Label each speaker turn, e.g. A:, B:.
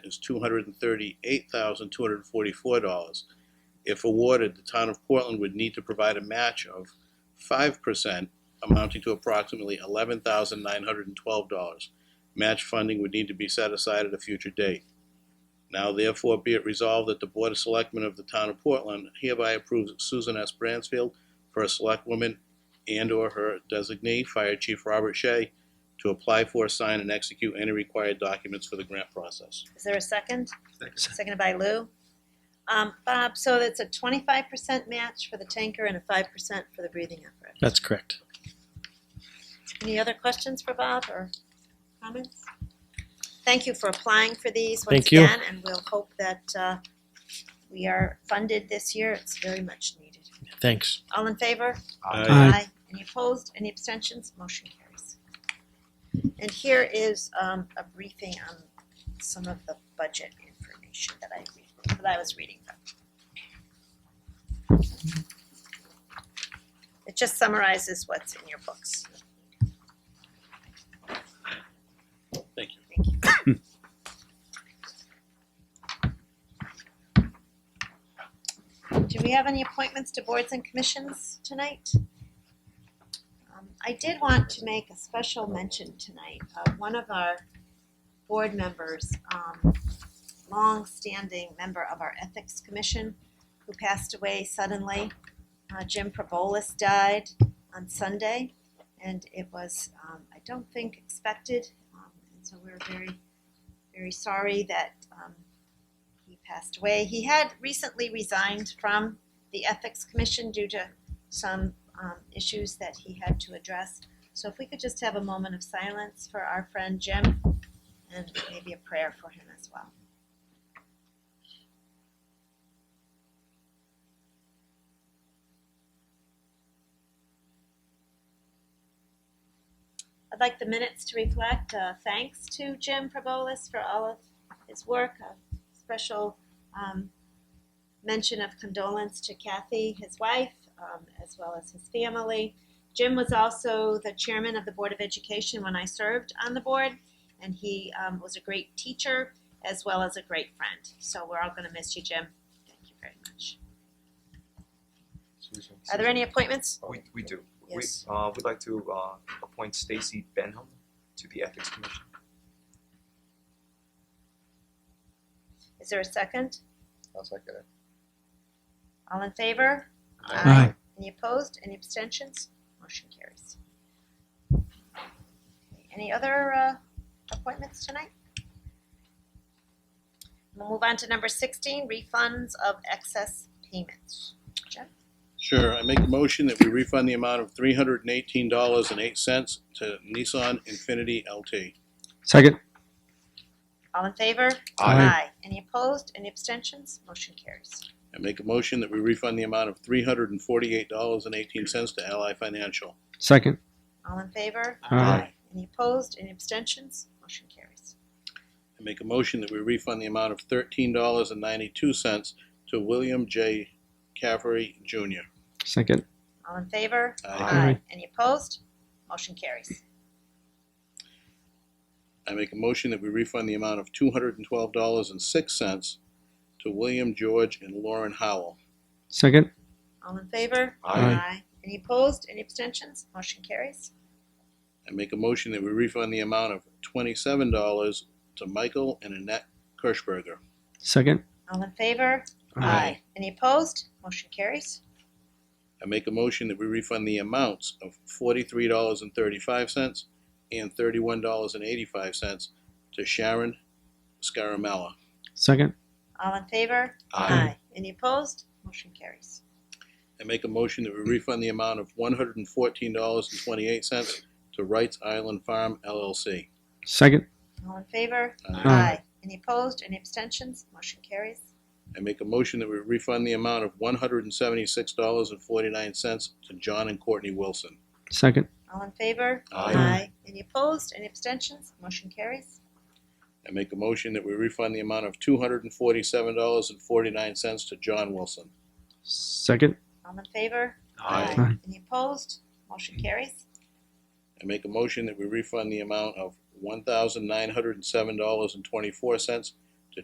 A: is two hundred and thirty-eight thousand, two hundred and forty-four dollars. If awarded, the town of Portland would need to provide a match of five percent amounting to approximately eleven thousand, nine hundred and twelve dollars. Match funding would need to be set aside at a future date. Now therefore be it resolved that the Board of Selectmen of the Town of Portland hereby approves Susan S. Bransfield for a selectwoman and/or her designee, Fire Chief Robert Shea, to apply for, sign, and execute any required documents for the grant process.
B: Is there a second?
C: Second.
B: Seconded by Lou. Um, Bob, so that's a twenty-five percent match for the tanker and a five percent for the breathing apparatus.
D: That's correct.
B: Any other questions for Bob or comments? Thank you for applying for these once
D: Thank you.
B: again, and we'll hope that, uh, we are funded this year. It's very much needed.
D: Thanks.
B: All in favor?
D: Aye.
B: Any opposed, any abstentions, motion carries. And here is um, a briefing on some of the budget information that I, re- that I was reading from. It just summarizes what's in your books.
A: Thank you.
B: Thank you. Do we have any appointments to boards and commissions tonight? Um, I did want to make a special mention tonight of one of our board members, um, longstanding member of our Ethics Commission, who passed away suddenly. Uh, Jim Probolis died on Sunday, and it was, um, I don't think expected. Um, and so we're very, very sorry that, um, he passed away. He had recently resigned from the Ethics Commission due to some um, issues that he had to address. So if we could just have a moment of silence for our friend Jim and maybe a prayer for him as well. I'd like the minutes to reflect uh, thanks to Jim Probolis for all of his work, uh, a special um, mention of condolence to Kathy, his wife, um, as well as his family. Jim was also the chairman of the Board of Education when I served on the board, and he um, was a great teacher as well as a great friend. So we're all going to miss you, Jim. Thank you very much. Are there any appointments?
C: Oh, We, we do.
B: Yes.
C: We, uh, we'd like to, uh, appoint Stacy Benham to the Ethics Commission.
B: Is there a second?
C: I'll second it.
B: All in favor?
D: Aye.
B: Any opposed? Any abstentions? Motion carries. Any other uh, appointments tonight? We'll move on to number sixteen, refunds of excess payments. Jeff,
A: Sure, I make a motion that we refund the amount of three hundred and eighteen dollars and eight cents to Nissan Infinity LT.
D: Second.
B: all in favor?
D: Aye.
B: Any opposed? Any abstentions? Motion carries.
A: I make a motion that we refund the amount of three hundred and forty-eight dollars and eighteen cents to Ally Financial.
D: Second. uh,
B: All in favor?
D: Aye. Aye.
B: Any opposed? Any abstentions? Motion carries.
A: I make a motion that we refund the amount of thirteen dollars and ninety-two cents to William J. Caffery Jr.
D: Second.
B: All in favor?
A: Aye.
B: Any opposed? Motion carries.
A: I make a motion that we refund the amount of two hundred and twelve dollars and six cents to William George and Lauren Howell.
D: Second.
B: All in favor?
C: Aye.
B: Any opposed? Any abstentions? Motion carries.
A: I make a motion that we refund the amount of twenty-seven dollars to Michael and Annette Kirschberger.
D: Second.
B: All in favor? Any opposed? Motion carries.
A: I make a motion that we refund the amounts of forty-three dollars and thirty-five cents and thirty-one dollars and eighty-five cents to Sharon Scaramella.
D: Second.
B: All in favor?
C: Aye.
B: Any opposed? Motion carries.
A: I make a motion that we refund the amount of one hundred and fourteen dollars and twenty-eight cents to Wright's Island Farm LLC.
D: Second.
B: All in favor?
A: Aye.
B: Any opposed? Any abstentions? Motion carries.
A: I make a motion that we refund the amount of one hundred and seventy-six dollars and forty-nine cents to John and Courtney Wilson.
D: Second.
B: All in favor?
C: Aye.
B: Any opposed? Any abstentions? Motion carries.
A: I make a motion that we refund the amount of two hundred and forty-seven dollars and forty-nine cents to John Wilson.
D: Second.
B: All in favor?
C: Aye.
D: Aye.
B: Any opposed? Motion carries.
A: I make a motion that we refund the amount of one thousand nine hundred and seven dollars and twenty-four cents